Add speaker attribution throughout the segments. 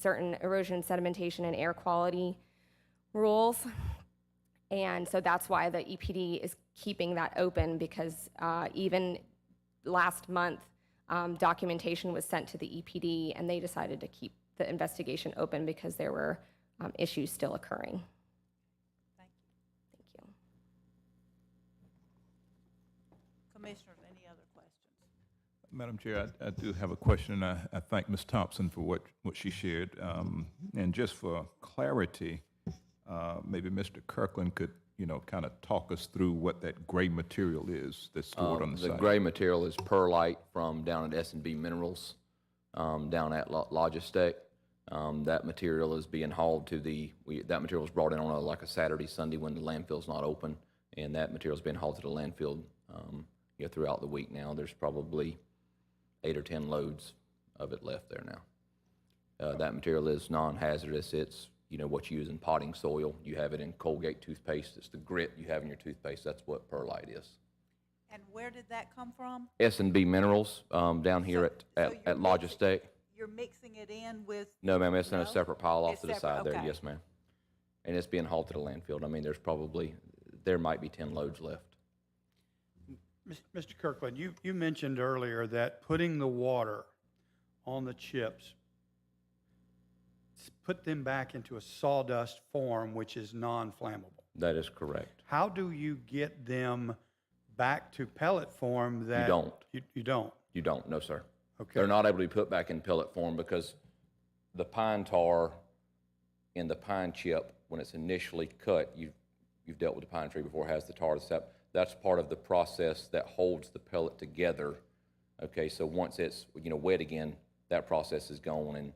Speaker 1: certain erosion, sedimentation, and air quality rules. And so that's why the EPD is keeping that open because uh, even last month, um, documentation was sent to the EPD and they decided to keep the investigation open because there were um, issues still occurring. Thank you.
Speaker 2: Commissioners, any other questions?
Speaker 3: Madam Chair, I, I do have a question, and I, I thank Ms. Thompson for what, what she shared. Um, and just for clarity, uh, maybe Mr. Kirkland could, you know, kind of talk us through what that gray material is that's stored on the
Speaker 4: Uh, Oh, The
Speaker 3: site.
Speaker 4: gray material is perlite from down at s and B Minerals, um, down at Lo- Logistec. Um, That material is being hauled to the, we- that material is brought in on a- like a Saturday, Sunday when the landfill's not open, and that material's being hauled to the landfill, um, you know, throughout the week now. There's probably eight or 10 loads of it left there now. Uh, That material is non-hazardous. It's, you know, what you use in potting soil. You have it in Colgate toothpaste. It's the grit you have in your toothpaste. That's what perlite is.
Speaker 2: And where did that come from?
Speaker 4: S and B Minerals um, down here at,
Speaker 2: so
Speaker 4: at,
Speaker 2: you're
Speaker 4: at Logistec.
Speaker 2: You're mixing it in with,
Speaker 4: No, ma'am, it's in a
Speaker 2: No?
Speaker 4: separate pile off
Speaker 2: It's
Speaker 4: to the
Speaker 2: separate,
Speaker 4: side there.
Speaker 2: okay.
Speaker 4: Yes, ma'am. And it's being hauled to the landfill. I mean, there's probably, there might be 10 loads left.
Speaker 5: Mis- Mr. Kirkland, you, you mentioned earlier that putting the water on the chips s- put them back into a sawdust form, which is non-flammable.
Speaker 4: That is correct.
Speaker 5: How do you get them back to pellet form that?
Speaker 4: don't.
Speaker 5: You, you don't?
Speaker 4: You don't, no, sir.
Speaker 5: Okay.
Speaker 4: They're not able to be put back in pellet form because the pine tar in the pine chip, when it's initially cut, you've, you've dealt with the pine tree before, has the tar that's up. That's part of the process that holds the pellet together. Okay, so once it's, you know, wet again, that process is gone and,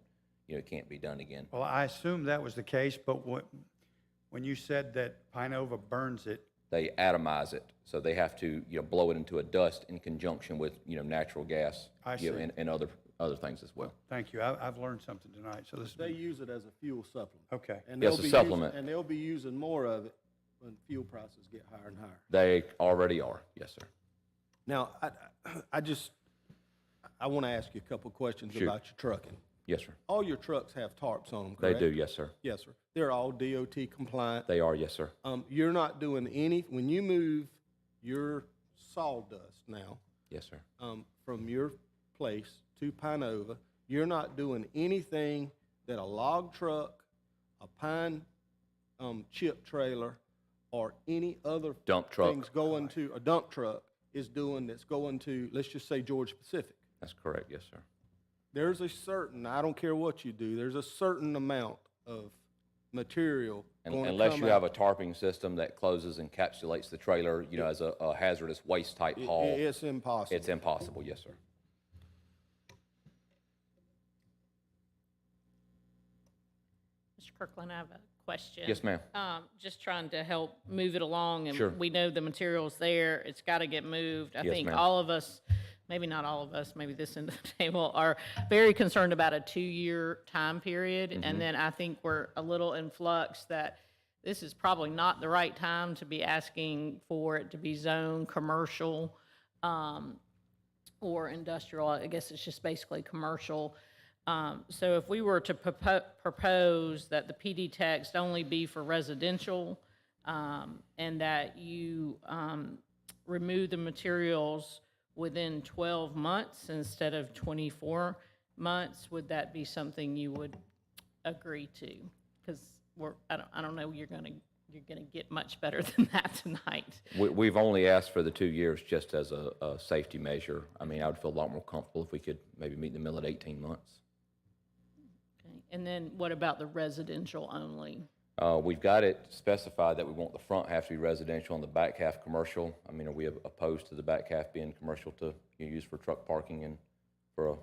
Speaker 4: you know, it can't be done again.
Speaker 5: Well, I assume that was the case, but what, when you said that Pinova burns it,
Speaker 4: They atomize it, so they have to, you know, blow it into a dust in conjunction with, you know, natural gas.
Speaker 5: I
Speaker 4: you know,
Speaker 5: see.
Speaker 4: And, and other, other things as well.
Speaker 5: thank you, I, I've learned something tonight, so this,
Speaker 6: They use it as a fuel supplement.
Speaker 5: Okay.
Speaker 6: And
Speaker 4: Yes,
Speaker 6: they'll
Speaker 4: a
Speaker 6: be using-
Speaker 4: supplement.
Speaker 6: And they'll be using more of it when fuel prices get higher and higher.
Speaker 4: They already are, yes, sir.
Speaker 6: Now, I, I just, I want to ask you a couple questions
Speaker 4: Shoot.
Speaker 6: about your trucking.
Speaker 4: Yes, sir.
Speaker 6: All your trucks have tarps on them,
Speaker 4: They
Speaker 6: correct?
Speaker 4: do, yes, sir.
Speaker 6: Yes, sir. They're all DOT compliant.
Speaker 4: They are, yes, sir.
Speaker 6: Um, you're not doing any, when you move your sawdust now,
Speaker 4: Yes, sir.
Speaker 6: um, from your place to Pinova, you're not doing anything that a log truck, a pine um, chip trailer, or any other
Speaker 4: Dump truck.
Speaker 6: things going to a dump truck is doing that's going to let's just say Georgia Pacific.
Speaker 4: That's correct, yes, sir.
Speaker 6: There's a certain I don't care what you do. There's a certain amount of material
Speaker 4: Un-
Speaker 6: gonna
Speaker 4: Unless
Speaker 6: come
Speaker 4: you have
Speaker 6: out.
Speaker 4: a tarping system that closes and encapsulates the trailer, you know, as a a hazardous waste-type
Speaker 6: It-
Speaker 4: haul,
Speaker 6: It's impossible.
Speaker 4: it's impossible, yes, sir.
Speaker 7: Mr. Kirkland, I have a question.
Speaker 4: Yes, ma'am.
Speaker 7: Um, just trying to help move it along, and
Speaker 4: Sure.
Speaker 7: we know the material's there. It's got to get moved. I
Speaker 4: Yes,
Speaker 7: think
Speaker 4: ma'am.
Speaker 7: all of us, maybe not all of us, maybe this end of the table, are very concerned about a two-year time period,
Speaker 4: Mm-hmm.
Speaker 7: and then I think we're a little in flux that this is probably not the right time to be asking for it to be zoned commercial um, or industrial. I guess it's just basically commercial. Um, So if we were to propo- propose that the PD text only be for residential um, and that you um, remove the materials within 12 months instead of 24 months, would that be something you would agree to? Because we're, I don't, I don't know, you're going to, you're going to get much better than that tonight.
Speaker 4: We- We've only asked for the two years just as a a safety measure. I mean, I would feel a lot more comfortable if we could maybe meet in the middle at 18 months.
Speaker 7: Okay. And then what about the residential only?
Speaker 4: Uh, We've got it specified that we want the front half to be residential and the back half commercial. I mean, are we opposed to the back half being commercial to you know, use for truck parking and for a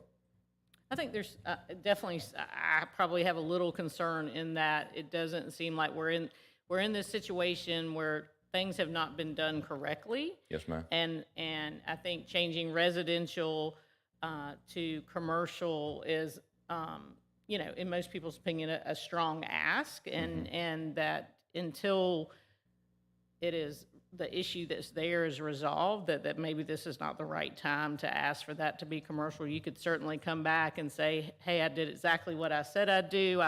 Speaker 7: I think there's uh, definitely, s- I I probably have a little concern in that it doesn't seem like we're in, we're in this situation where things have not been done correctly.
Speaker 4: Yes, ma'am.
Speaker 7: And, and I think changing residential uh, to commercial is, um, you know, in most people's opinion, a, a strong ask. And, and that until it is the issue that's there is resolved, that, that maybe this is not the right time to ask for that to be commercial, you could certainly come back and say, hey, I did exactly what I said I'd do.